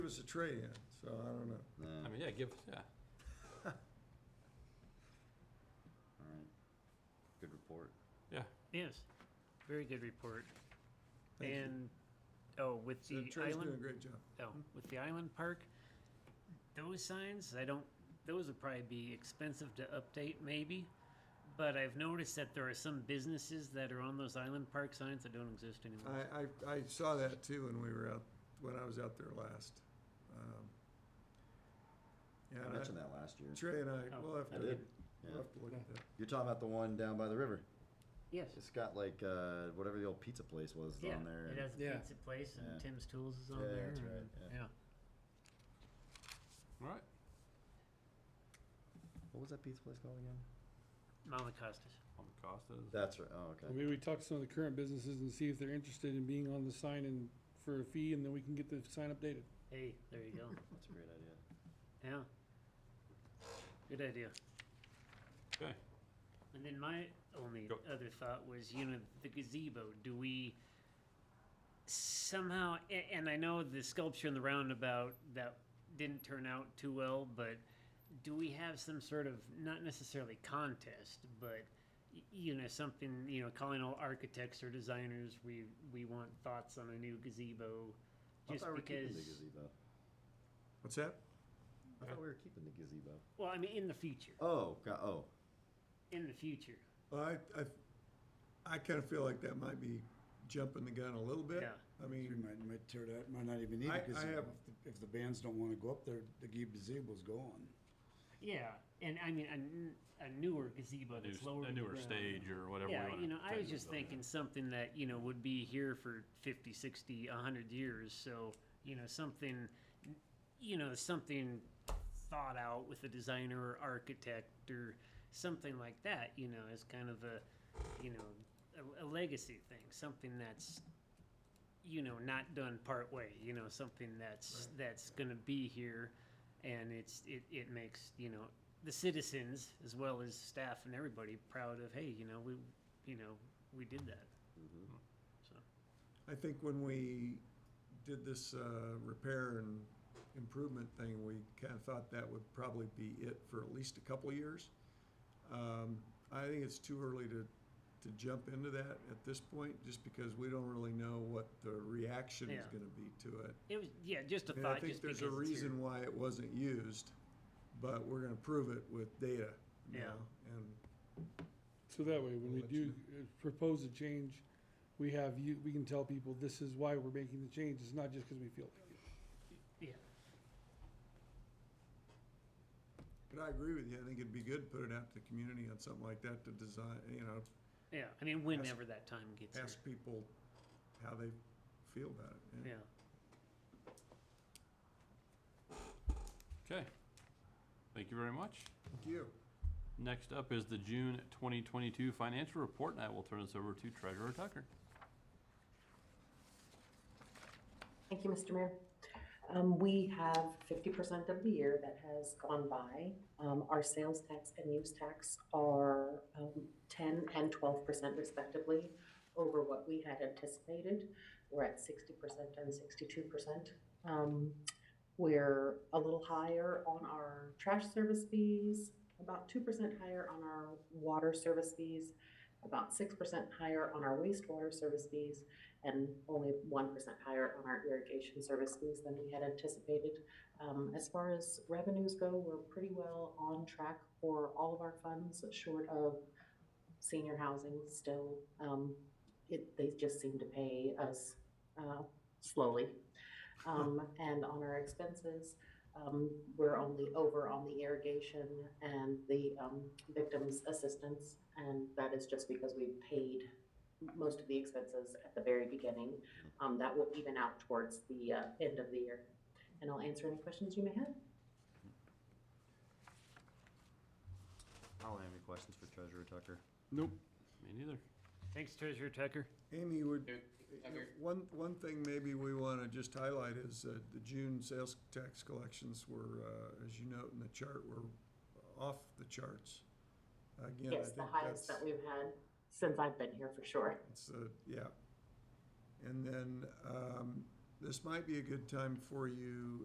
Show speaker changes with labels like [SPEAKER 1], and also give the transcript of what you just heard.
[SPEAKER 1] Give us a trade-in, so I don't know.
[SPEAKER 2] No,
[SPEAKER 3] I mean, yeah, give, yeah.
[SPEAKER 2] all right. Good report.
[SPEAKER 4] Yes, very good report.
[SPEAKER 1] Thank you.
[SPEAKER 4] and oh, with
[SPEAKER 1] So
[SPEAKER 4] the
[SPEAKER 1] Trey's doing a
[SPEAKER 4] island,
[SPEAKER 1] great job.
[SPEAKER 4] oh, with the island park, those signs, I don't. Those would probably be expensive to update, maybe. But I've noticed that there are some businesses that are on those island park signs that don't exist anymore.
[SPEAKER 1] I, I, I saw that too when we were out, when I was out there last. Um,
[SPEAKER 2] I
[SPEAKER 1] Yeah, and
[SPEAKER 2] mentioned
[SPEAKER 1] I-
[SPEAKER 2] that last year.
[SPEAKER 1] Trey and I,
[SPEAKER 4] Oh.
[SPEAKER 1] we'll have
[SPEAKER 2] I
[SPEAKER 1] to,
[SPEAKER 2] did.
[SPEAKER 1] we'll
[SPEAKER 2] Yeah.
[SPEAKER 1] have to look at that.
[SPEAKER 2] You're talking about the one down by the river.
[SPEAKER 4] yes.
[SPEAKER 2] It's got like uh, whatever the old pizza place was
[SPEAKER 4] yeah,
[SPEAKER 2] on there.
[SPEAKER 4] it has a
[SPEAKER 5] Yeah.
[SPEAKER 4] pizza place and
[SPEAKER 2] Yeah.
[SPEAKER 4] Tim's Tools is on
[SPEAKER 2] Yeah,
[SPEAKER 4] there.
[SPEAKER 2] that's right,
[SPEAKER 4] and-
[SPEAKER 2] yeah.
[SPEAKER 4] yeah.
[SPEAKER 3] All right.
[SPEAKER 2] What was that pizza place called again?
[SPEAKER 4] Malacostas.
[SPEAKER 3] On the Costas.
[SPEAKER 2] That's right. Oh, okay.
[SPEAKER 5] Maybe we talk to some of the current businesses and see if they're interested in being on the sign and for a fee, and then we can get the sign updated.
[SPEAKER 4] Hey, there you go.
[SPEAKER 2] That's a great idea.
[SPEAKER 4] yeah. Good idea.
[SPEAKER 3] Okay.
[SPEAKER 4] And then my only
[SPEAKER 3] Go.
[SPEAKER 4] other thought was, you know, the gazebo. Do we somehow? a- And I know the sculpture in the roundabout that didn't turn out too well, but do we have some sort of not necessarily contest, but y- you know, something you know, calling all architects or designers, we we want thoughts on a new gazebo, just
[SPEAKER 2] I thought we were keeping the
[SPEAKER 4] because.
[SPEAKER 2] gazebo.
[SPEAKER 1] What's that?
[SPEAKER 2] I thought we were keeping the gazebo.
[SPEAKER 4] Well, I mean, in the future,
[SPEAKER 2] Oh, God, oh.
[SPEAKER 4] in the future,
[SPEAKER 1] Well, I, I, I kinda feel like that might be jumping the gun a little bit.
[SPEAKER 4] Yeah.
[SPEAKER 1] I
[SPEAKER 6] You
[SPEAKER 1] mean,
[SPEAKER 6] might, might tear that, might not even need
[SPEAKER 1] I- I
[SPEAKER 6] it, because
[SPEAKER 1] have-
[SPEAKER 6] if, the- if the bands don't wanna go up there, the gazebo's gone.
[SPEAKER 4] yeah. And I mean, a n- a, newer gazebo
[SPEAKER 3] A new-
[SPEAKER 4] that's lower.
[SPEAKER 3] a
[SPEAKER 4] to the
[SPEAKER 3] newer
[SPEAKER 4] ground.
[SPEAKER 3] stage or whatever. we
[SPEAKER 4] Yeah,
[SPEAKER 3] wanna
[SPEAKER 4] you know, I was
[SPEAKER 3] technically
[SPEAKER 4] just
[SPEAKER 3] call it.
[SPEAKER 4] thinking something that, you know, would be here for 50, 60, 100 years. So, you know, something, you know, something thought out with a designer or architect or something like that, you know, as kind of a, you know, a, a legacy thing, something that's, you know, not done part way, you know, something that's, that's going to be here. And it's, it, it makes, you know, the citizens as well as staff and everybody proud of, hey, you know, we, you know, we did that. So,
[SPEAKER 1] I think when we did this, uh, repair and improvement thing, we kinda thought that would probably be it for at least a couple of years. Um, I think it's too early to, to jump into that at this point, just because we don't really know what the reaction is
[SPEAKER 4] Yeah.
[SPEAKER 1] gonna be to it.
[SPEAKER 4] it was, yeah, just a
[SPEAKER 1] And I
[SPEAKER 4] thought,
[SPEAKER 1] think
[SPEAKER 4] just
[SPEAKER 1] there's
[SPEAKER 4] because
[SPEAKER 1] a
[SPEAKER 4] it's here.
[SPEAKER 1] reason why it wasn't used, but we're gonna prove it with data
[SPEAKER 4] Yeah.
[SPEAKER 1] now. And
[SPEAKER 5] So that way, when
[SPEAKER 1] We'll
[SPEAKER 5] we
[SPEAKER 1] let you
[SPEAKER 5] do uh, propose a change, we have you, we can tell people this is why we're making the change. It's not just because we feel like it.
[SPEAKER 4] Yeah,
[SPEAKER 1] But I agree with you. I think it'd be good to put it out to the community on something like that to design, you know,
[SPEAKER 4] yeah, I mean, whenever that time gets here,
[SPEAKER 1] ask people how they feel about it.
[SPEAKER 4] yeah.
[SPEAKER 3] Okay. Thank you very much.
[SPEAKER 1] Thank you.
[SPEAKER 3] Next up is the June 2022 financial report, and I will turn this over to Treasurer Tucker.
[SPEAKER 7] Thank you, Mr. Mayor. Um, we have fifty percent of the year that has gone by. Um, our sales tax and use tax are, um, ten and twelve percent respectively over what we had anticipated. We're at sixty percent and sixty-two percent. Um, we're a little higher on our trash service fees, about two percent higher on our water service fees, about six percent higher on our wastewater service fees, and only one percent higher on our irrigation service fees than we had anticipated. Um, as far as revenues go, we're pretty well on track for all of our funds, short of senior housing still. Um, it, they just seem to pay us, uh, slowly. Um, and on our expenses, um, we're only over on the irrigation and the, um, victims assistance. And that is just because we paid most of the expenses at the very beginning. Um, that will even out towards the, uh, end of the year. And I'll answer any questions you may have.
[SPEAKER 2] I don't have any questions for Treasurer Tucker.
[SPEAKER 5] Nope.
[SPEAKER 3] Me neither.
[SPEAKER 4] Thanks, Treasurer Tucker.
[SPEAKER 1] Amy, would, one, one thing maybe we want to just highlight is that the June sales tax collections were, uh, as you note in the chart, were off the charts. Again, I
[SPEAKER 7] Yes,
[SPEAKER 1] think
[SPEAKER 7] the highest
[SPEAKER 1] that's-
[SPEAKER 7] that we've had since I've been here for sure.
[SPEAKER 1] It's uh yeah. And then, um, this might be a good time for you,